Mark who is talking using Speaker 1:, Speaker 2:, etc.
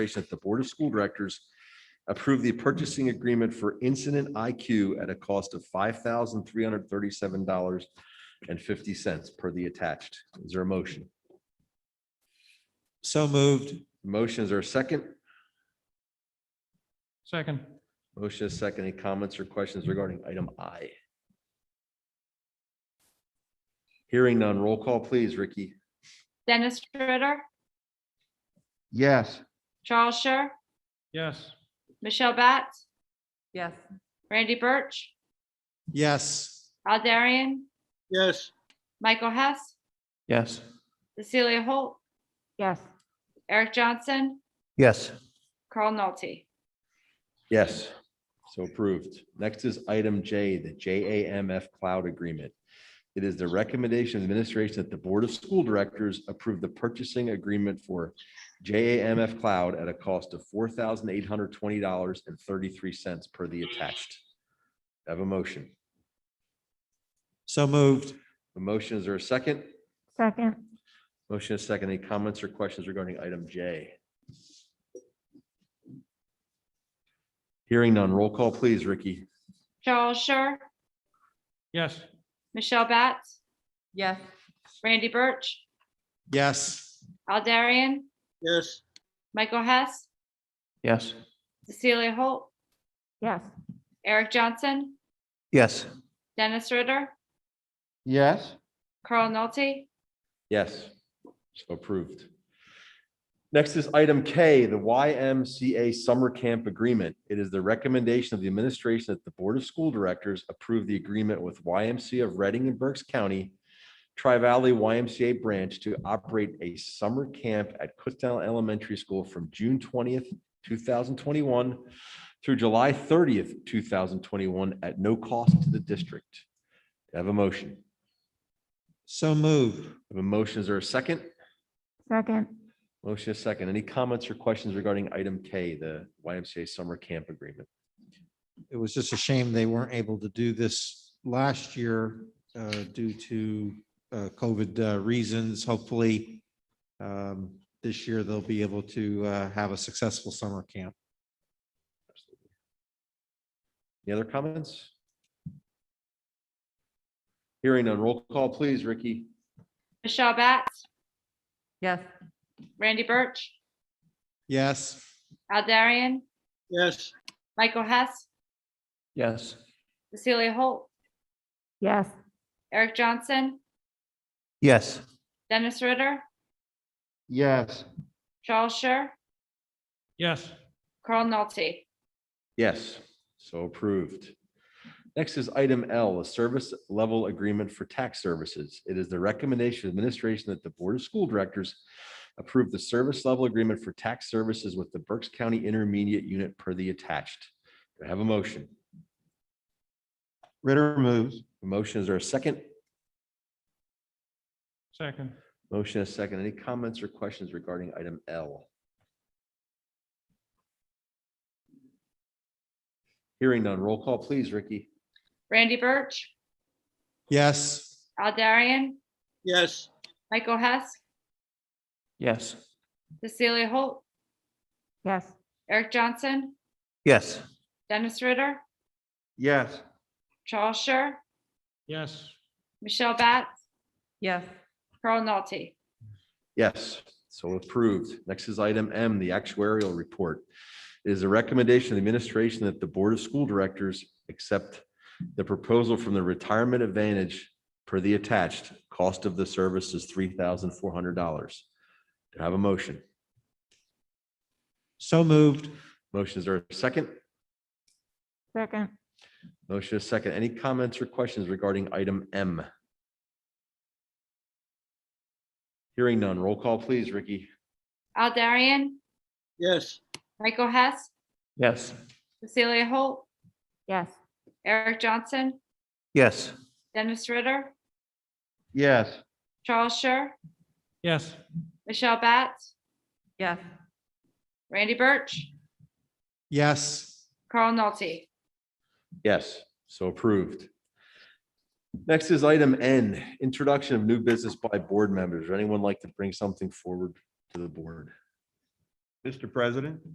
Speaker 1: consideration that the Board of School Directors approve the purchasing agreement for Incident IQ at a cost of five thousand three hundred thirty-seven dollars and fifty cents per the attached. Is there a motion?
Speaker 2: So moved.
Speaker 1: Motion, is there a second?
Speaker 3: Second.
Speaker 1: Motion is second. Any comments or questions regarding item I? Hearing none. Roll call, please, Ricky.
Speaker 4: Dennis Ritter,
Speaker 5: Yes,
Speaker 4: Charles Scher,
Speaker 3: Yes.
Speaker 4: Michelle Batts,
Speaker 6: Yes.
Speaker 4: Randy Birch,
Speaker 2: Yes.
Speaker 4: Al Darian,
Speaker 3: Yes.
Speaker 4: Michael Hess,
Speaker 2: Yes.
Speaker 4: Cecilia Holt,
Speaker 6: Yes.
Speaker 4: Eric Johnson,
Speaker 2: Yes.
Speaker 4: Carl Nolte.
Speaker 1: Yes, so approved. Next is item J, the JAMF Cloud Agreement. It is the recommendation of administration that the Board of School Directors approve the purchasing agreement for JAMF Cloud at a cost of four thousand eight hundred twenty dollars and thirty-three cents per the attached. Have a motion.
Speaker 2: So moved.
Speaker 1: A motion, is there a second?
Speaker 6: Second.
Speaker 1: Motion is second. Any comments or questions regarding item J? Hearing none. Roll call, please, Ricky.
Speaker 4: Charles Scher,
Speaker 3: Yes.
Speaker 4: Michelle Batts,
Speaker 6: Yes.
Speaker 4: Randy Birch,
Speaker 2: Yes.
Speaker 4: Al Darian,
Speaker 3: Yes.
Speaker 4: Michael Hess,
Speaker 2: Yes.
Speaker 4: Cecilia Holt,
Speaker 6: Yes.
Speaker 4: Eric Johnson,
Speaker 2: Yes.
Speaker 4: Dennis Ritter,
Speaker 5: yes,
Speaker 4: Carl Nolte,
Speaker 1: Yes, so approved. Next is item K, the YMCA Summer Camp Agreement. It is the recommendation of the administration that the Board of School Directors approve the agreement with YMCA of Reading and Berks County, Tri-Valley YMCA Branch to operate a summer camp at Kutztown Elementary School from June twentieth, two thousand twenty-one through July thirtieth, two thousand twenty-one at no cost to the district. Do I Have a motion.
Speaker 2: So moved.
Speaker 1: Have a motion. Is there a second?
Speaker 6: Second.
Speaker 1: Motion is second. Any comments or questions regarding item K, the YMCA summer camp agreement?
Speaker 2: It was just a shame they weren't able to do this last year uh, due to uh, COVID uh, reasons. Hopefully, um, this year they'll be able to uh, have a successful summer camp.
Speaker 1: Any other comments? Hearing none. Roll call, please, Ricky.
Speaker 4: Michelle Batts,
Speaker 6: Yes.
Speaker 4: Randy Birch,
Speaker 2: Yes.
Speaker 4: Al Darian,
Speaker 3: Yes.
Speaker 4: Michael Hess,
Speaker 2: Yes.
Speaker 4: Cecilia Holt,
Speaker 6: Yes.
Speaker 4: Eric Johnson,
Speaker 2: Yes.
Speaker 4: Dennis Ritter,
Speaker 5: yes,
Speaker 4: Charles Scher,
Speaker 3: Yes.
Speaker 4: Carl Nolte.
Speaker 1: Yes, so approved. Next is item L, a service level agreement for tax services. It is the recommendation of administration that the Board of School Directors approve the service level agreement for tax services with the Berks County Intermediate Unit per the attached. Do I have a motion?
Speaker 2: Ritter moves.
Speaker 1: Motion, is there a second?
Speaker 3: Second.
Speaker 1: Motion is second. Any comments or questions regarding item L? Hearing none. Roll call, please, Ricky.
Speaker 4: Randy Birch,
Speaker 2: Yes.
Speaker 4: Al Darian,
Speaker 3: Yes.
Speaker 4: Michael Hess,
Speaker 2: Yes.
Speaker 4: Cecilia Holt,
Speaker 6: Yes.
Speaker 4: Eric Johnson,
Speaker 2: Yes.
Speaker 4: Dennis Ritter,
Speaker 5: yes,
Speaker 4: Charles Scher,
Speaker 3: Yes.
Speaker 4: Michelle Batts,
Speaker 6: Yes.
Speaker 4: Carl Nolte.
Speaker 1: Yes, so approved. Next is item M, the actuarial report. It is a recommendation of the administration that the Board of School Directors accept the proposal from the Retirement Advantage per the attached. Cost of the service is three thousand four hundred dollars. Do I have a motion?
Speaker 2: So moved.
Speaker 1: Motions are second?
Speaker 6: Second.
Speaker 1: Motion is second. Any comments or questions regarding item M? Hearing none. Roll call, please, Ricky.
Speaker 4: Al Darian,
Speaker 3: Yes.
Speaker 4: Michael Hess,
Speaker 2: Yes.
Speaker 4: Cecilia Holt,
Speaker 6: Yes.
Speaker 4: Eric Johnson,
Speaker 2: Yes.
Speaker 4: Dennis Ritter,
Speaker 5: yes,
Speaker 4: Charles Scher,
Speaker 3: Yes.
Speaker 4: Michelle Batts,
Speaker 6: Yes.
Speaker 4: Randy Birch,
Speaker 2: Yes.
Speaker 4: Carl Nolte.
Speaker 1: Yes, so approved. Next is item N, introduction of new business by board members. Would Anyone like to bring something forward to the board?
Speaker 2: Mr. President?